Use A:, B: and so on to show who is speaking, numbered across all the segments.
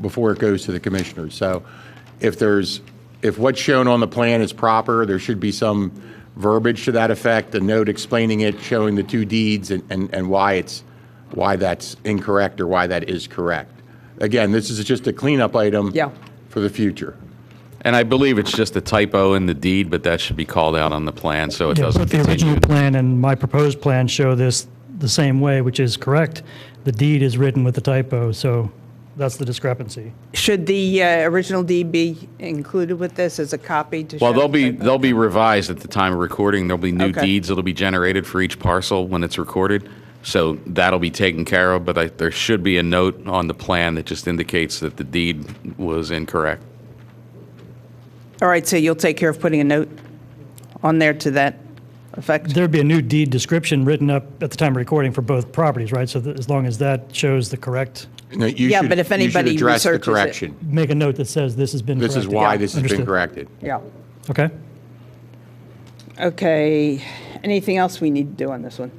A: before it goes to the commissioners. So if there's, if what's shown on the plan is proper, there should be some verbiage to that effect, a note explaining it, showing the two deeds and, and and why it's, why that's incorrect or why that is correct. Again, this is just a cleanup item.
B: Yeah.
A: For the future.
C: And I believe it's just a typo in the deed, but that should be called out on the plan so it
D: Yeah,
C: doesn't
D: both the
C: continue.
D: original plan and my proposed plan show this the same way, which is correct. The deed is written with the typo, so that's the discrepancy.
B: Should the uh, original deed be included with this as a copy to show?
C: Well, they'll
B: the
C: be,
B: typo?
C: they'll be revised at the time of recording. There'll be new
B: Okay.
C: deeds that'll be generated for each parcel when it's recorded. So that'll be taken care of, but I, there should be a note on the plan that just indicates that the deed was incorrect.
B: All right, so you'll take care of putting a note on there to that effect?
D: There'd be a new deed description written up at the time of recording for both properties, right? So that as long as that shows the correct,
A: No, you
B: Yeah,
A: should-
B: but if
A: you should
B: anybody
A: address the
B: researches it.
A: correction.
D: make a note that says this has been
A: This is
D: corrected.
A: why this has been
D: Understood.
A: corrected.
B: Yeah.
D: Okay.
B: Okay. Anything else we need to do on this one?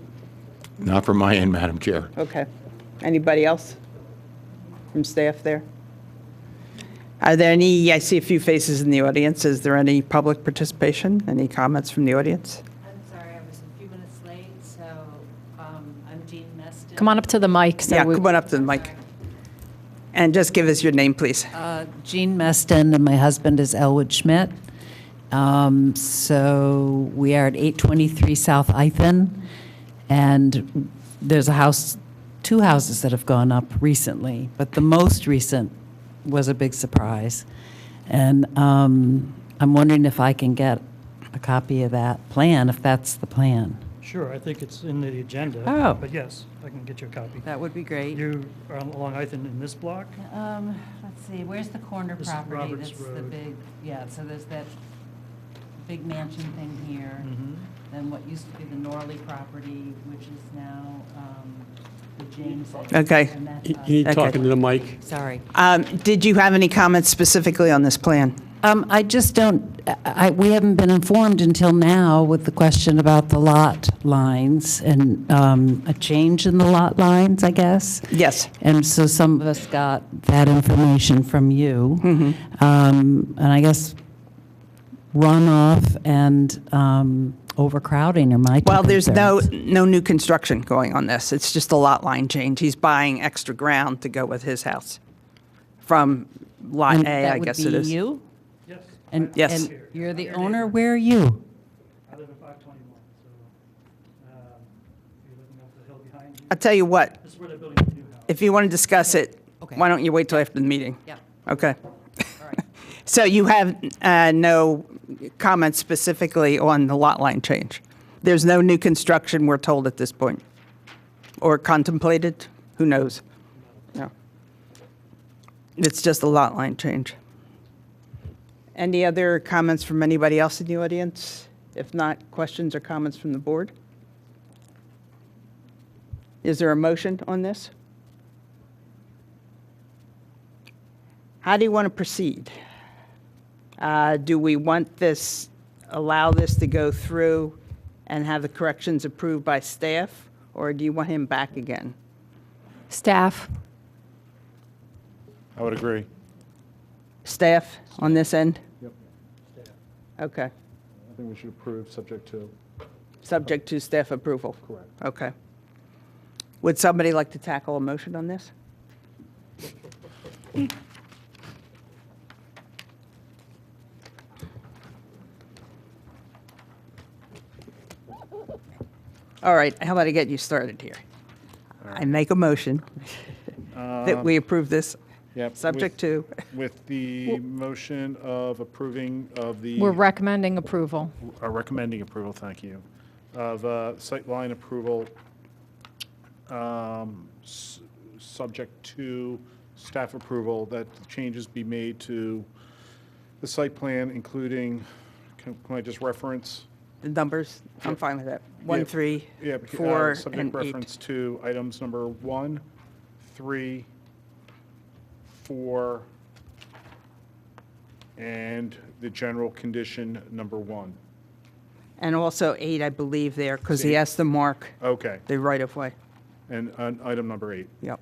A: Not from my end, Madam Chair.
B: Okay. Anybody else from staff there? Are there any, I see a few faces in the audience. Is there any public participation? Any comments from the audience?
E: I'm sorry, I was a few minutes late, so um, I'm Jean Meston.
F: Come on up to the mic. so
B: Yeah,
F: we-
B: come on up to the mic. And just give us your name, please.
E: Uh, Jean Meston, and my husband is Elwood Schmidt. Um, So we are at 823 South Ithan, and there's a house, two houses that have gone up recently, but the most recent was a big surprise. And um, I'm wondering if I can get a copy of that plan, if that's the plan.
D: Sure, I think it's in the agenda.
E: Oh.
D: But yes, I can get you a copy.
E: That would be great.
D: You are along Ithan in this block?
E: Um, let's see, where's the corner
D: This is
E: property
D: Roberts
E: that's the
D: Road.
E: big, yeah, so there's that big mansion thing here.
D: Mm-hmm.
E: Then what used to be the Norley property, which is now, um, the James.
B: Okay.
E: and that's
G: You
E: us.
G: you
B: Okay.
G: need talking to the mic.
E: Sorry.
B: Um, Did you have any comments specifically on this plan?
E: Um, I just don't, I- I, we haven't been informed until now with the question about the lot lines and, um, a change in the lot lines, I guess.
B: Yes.
E: And so some of us got that information from you.
B: Mm-hmm.
E: Um, And I guess runoff and um, overcrowding are my two
B: Well, there's no,
E: concerns.
B: no new construction going on this. It's just a lot line change. He's buying extra ground to go with his house from Lot
E: And
B: A, I guess it
E: That would
B: is.
E: be you?
D: Yes.
E: And-
B: Yes.
E: And you're the owner, where are you?
D: I live at 521, so um, if you're looking up the hill behind you,
B: I'll tell you what,
D: this is where they're building the new house.
B: if you want to discuss it,
E: Okay.
B: why don't you wait till after the meeting?
E: Yeah.
B: Okay. So you have uh, no comments specifically on the lot line change? There's no new construction, we're told at this point, or contemplated? Who knows? No. It's just a lot line change. Any other comments from anybody else in the audience? If not, questions or comments from the board? Is there a motion on this? How do you want to proceed? Uh, Do we want this, allow this to go through and have the corrections approved by staff? Or do you want him back again?
F: Staff,
H: I would agree.
B: Staff on this end?
H: Yep.
B: Okay.
H: I think we should approve, subject to.
B: Subject to staff approval?
H: Correct.
B: Okay. Would somebody like to tackle a motion on this? All right, how about I get you started here? I make a motion that we approve this,
H: Um, Yep.
B: subject to,
H: with- With the motion of approving of the.
F: we're recommending approval.
H: uh, Recommending approval, thank you, of uh, sightline approval, um, s- subject to staff approval, that changes be made to the site plan, including, can can I just reference?
B: the numbers, I'm fine with that.
H: Yeah,
B: One, three,
H: Yeah, bec- uh,
B: four, and
H: Subject
B: eight.
H: reference to items number one, three, four, and the general condition number one.
B: And also eight, I believe there, because he has to mark
H: Okay,
B: the right-of-way.
H: and uh, item number eight.
B: Yep.